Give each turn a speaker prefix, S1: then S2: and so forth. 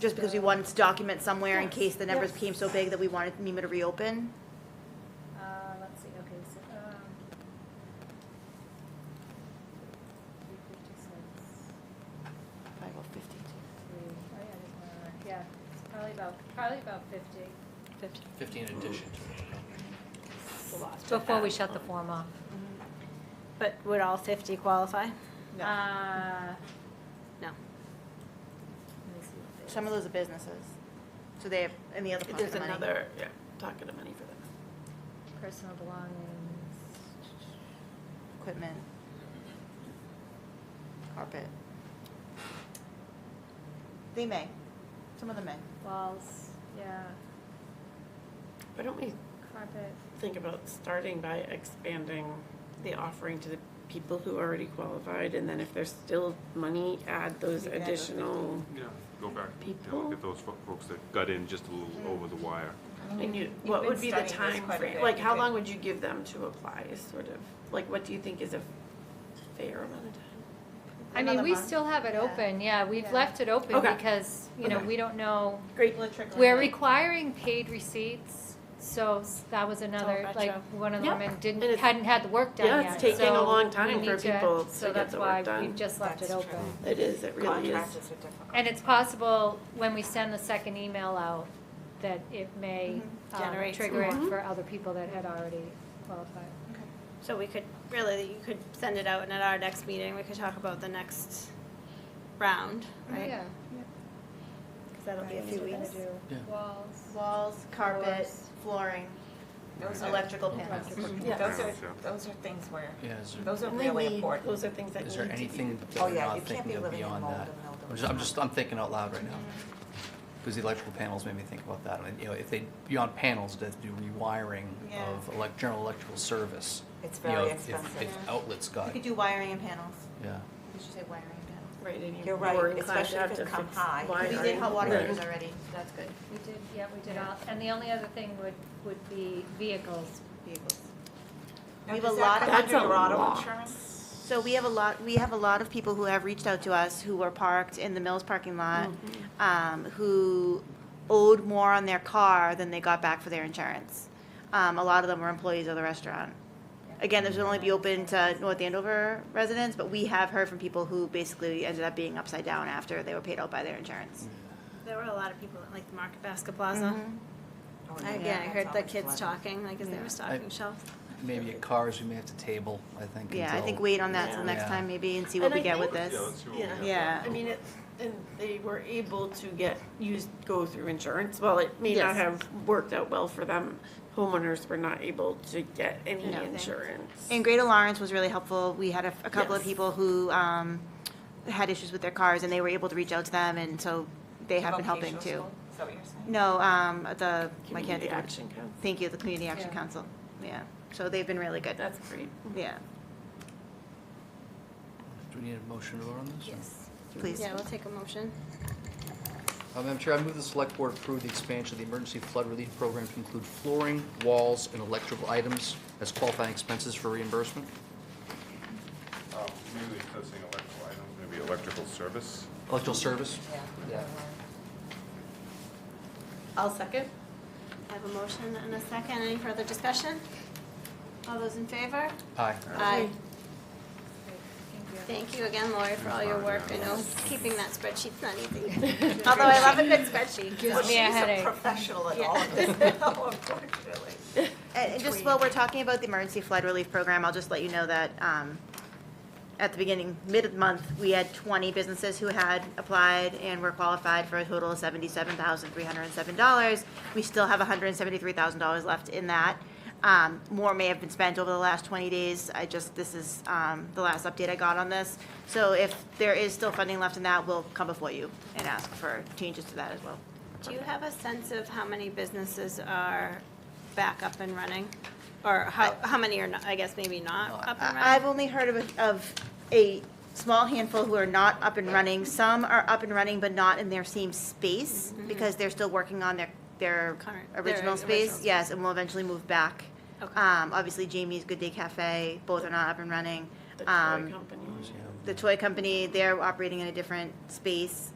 S1: just because we wanted to document somewhere in
S2: Yes,
S1: case the numbers
S2: yes.
S1: became so big that we wanted NEMA to reopen?
S2: Uh, let's see, okay, so, um. Three fifty-six.
S1: Five oh fifty-two.
S2: three, oh yeah, there's one on there. yeah, it's probably about, probably about fifty.
S3: Fifty-
S4: Fifteen addition to what you got.
S3: Before we shut the form off.
S5: But would all 50 qualify?
S1: No.
S2: Uh,
S5: No.
S2: let me see what they-
S1: Some of those are businesses, so they have, and the other pocket
S6: There's
S1: of money.
S6: another, yeah, pocket of money for them.
S2: Personal belongings,
S1: Equipment. Carpet. They may, some of them may.
S2: walls, yeah,
S6: Why don't we
S2: carpet.
S6: think about starting by expanding the offering to the people who already qualified? And then if there's still money, add those
S1: Maybe add those
S6: additional,
S7: Yeah, go back, you know,
S6: People?
S7: look at those fo- folks that got in just a little over the wire.
S6: and you,
S8: You've
S6: what
S8: been
S6: would be the
S8: studying this
S6: time
S8: quite a
S6: frame?
S8: bit.
S6: Like,
S8: You
S6: how
S8: could-
S6: long would you give them to apply, is sort of? Like, what do you think is a fair amount of time?
S3: I mean,
S1: Another
S3: we
S1: month.
S3: still have it
S2: Yeah.
S3: open, yeah, we've
S2: Yeah.
S3: left it open
S6: Okay.
S3: because, you know,
S6: Okay.
S3: we don't know.
S6: Great.
S3: We're requiring paid receipts, so s- that was another,
S6: Oh, gotcha.
S3: like, one of the
S6: Yeah.
S3: women didn't,
S6: And it's-
S3: hadn't had the work done
S6: Yeah,
S3: yet.
S6: it's taking a
S3: so
S6: long
S3: we
S6: time for
S3: need
S6: people
S3: So
S6: to get
S3: that's
S6: the
S3: why
S6: work done.
S3: we've just left it
S8: That's true.
S3: open.
S6: It is, it really is.
S8: Contractors are difficult.
S3: And it's possible, when we send the second email out, that it may
S6: Mm-hmm.
S3: um,
S5: Generate some
S3: trigger it
S6: more.
S3: for other people that had already qualified.
S5: So we could, really, you could send it out and at our next meeting, we could talk about the next round, right?
S3: Yeah.
S5: Because that'll be a few
S2: We're gonna
S5: weeks.
S2: do
S4: Yeah.
S2: Walls,
S1: Walls, carpet,
S2: Floors.
S1: flooring.
S8: Those are-
S1: Electrical panels.
S6: Yeah.
S8: Those are,
S7: Yeah.
S8: those are things where,
S4: Yeah, is there-
S8: those are
S6: And they
S8: really
S6: need-
S8: important.
S6: Those are things that need
S4: is
S6: to be.
S4: there anything that
S8: Oh,
S4: we're
S8: yeah, you
S4: not
S8: can't be
S4: thinking of
S8: living in
S4: beyond
S8: mold
S4: that?
S8: and mildew
S4: I'm
S8: and
S4: just- I'm
S8: stuff.
S4: just, I'm thinking out loud right now. Because the electrical panels made me think about that. And, you know, if they, beyond panels, they have to do rewiring
S1: Yeah.
S4: of elec- general electrical service.
S8: It's
S4: you know,
S8: very
S4: if- if-
S8: expensive.
S4: If outlets
S1: You
S4: got,
S1: could do wiring and panels.
S4: yeah.
S1: You should say wiring and panels.
S6: Right, and you
S8: You're right,
S6: were inclined
S8: especially
S6: to have
S8: if it
S6: to
S8: come
S6: fix
S8: high.
S6: wiring.
S1: We did hot water
S4: Right.
S1: heaters already, that's good.
S3: We did, yeah, we did all, and the only other thing would, would be vehicles.
S1: Vehicles.
S8: Now,
S1: We have a
S8: does
S1: lot
S8: that
S1: of
S8: come under
S6: That's a
S8: your auto
S6: lot.
S8: insurance?
S1: So we have a lot, we have a lot of people who have reached out to us who were parked in the Mills parking lot,
S6: Mm-hmm.
S1: um, who owed more on their car than they got back for their insurance. Um, a lot of them were employees of the restaurant. Again, this would only be open to North Andover residents, but we have heard from people who basically ended up being upside down after they were paid out by their insurance.
S5: There were a lot of people at like the Market Basket Plaza.
S8: Oh,
S5: I- Yeah,
S8: yeah,
S5: I
S8: that's
S5: heard the
S8: always
S5: kids
S8: flooded.
S5: talking, like, as they
S1: Yeah.
S5: were stocking shelves.
S4: Maybe at cars, we may have to table, I think.
S1: Yeah, I
S4: until-
S1: think wait on that till
S6: Yeah.
S1: next
S4: Yeah.
S1: time maybe and see what
S6: And
S1: we
S6: I
S1: get with
S6: think-
S1: this.
S7: Yeah, let's see what we
S6: Yeah.
S7: got.
S1: Yeah.
S6: I mean, it, and they were able to get, use, go through insurance, while it may not
S3: Yes.
S6: have worked out well for them, homeowners were not able to get any
S1: No.
S6: insurance.
S1: And Greater Lawrence was really helpful. We had a, a couple of
S6: Yes.
S1: people who um, had issues with their cars, and they were able to reach out to them, and so they have been helping
S8: Vocational
S1: too.
S8: school? Is that what you're saying?
S1: No, um, the I can't
S6: Community
S1: think of it.
S6: Action Council,
S1: Thank you, the Community Action
S3: Yeah.
S1: Council. Yeah, so they've been really good.
S6: that's great.
S1: Yeah,
S4: Do we need a motion to vote on this? or-
S1: please.
S5: Yeah, we'll take a motion.
S4: Uh, Madam Chair, I move the Select Board approve the expansion of the Emergency Flood Relief Program to include flooring, walls, and electrical items as qualifying expenses for reimbursement.
S7: Um, Maybe it's not saying electrical items, maybe electrical service.
S4: Electrical service? Yeah.
S6: I'll second.
S5: I have a motion and a second. Any further discussion? All those in favor?
S4: Aye.
S5: Aye.
S3: Thank you.
S5: Thank you again, Lori, for all your work. I know keeping that spreadsheet's not easy.
S8: Although I love it.
S5: good spreadsheet. so-
S3: me a headache.
S8: She's a professional at
S5: Yeah.
S8: all of this, though, unfortunately.
S1: And and just while we're talking about the emergency flood relief program, I'll just let you know that um, at the beginning, mid-month, we had 20 businesses who had applied and were qualified for a total of $77,307. We still have $173,000 left in that. Um, More may have been spent over the last 20 days. I just, this is um, the last update I got on this. So if there is still funding left in that, we'll come before you and ask for changes to that as well.
S5: Do you have a sense of how many businesses are back up and running? Or how, how many are not, I guess maybe not up and
S1: I- I've
S5: running?
S1: only heard of, of a small handful who are not up and running. Some are up and running, but not in their same space because they're still working on their, their
S5: Mm-hmm. Current- their
S1: original
S5: original
S1: space.
S5: space.
S1: Yes, and will eventually move back.
S5: Okay.
S1: Um, obviously Jamie's Good Day Cafe, both are not up and running.
S6: The toy
S1: Um,
S6: company.
S1: The toy company, they're operating in a different space.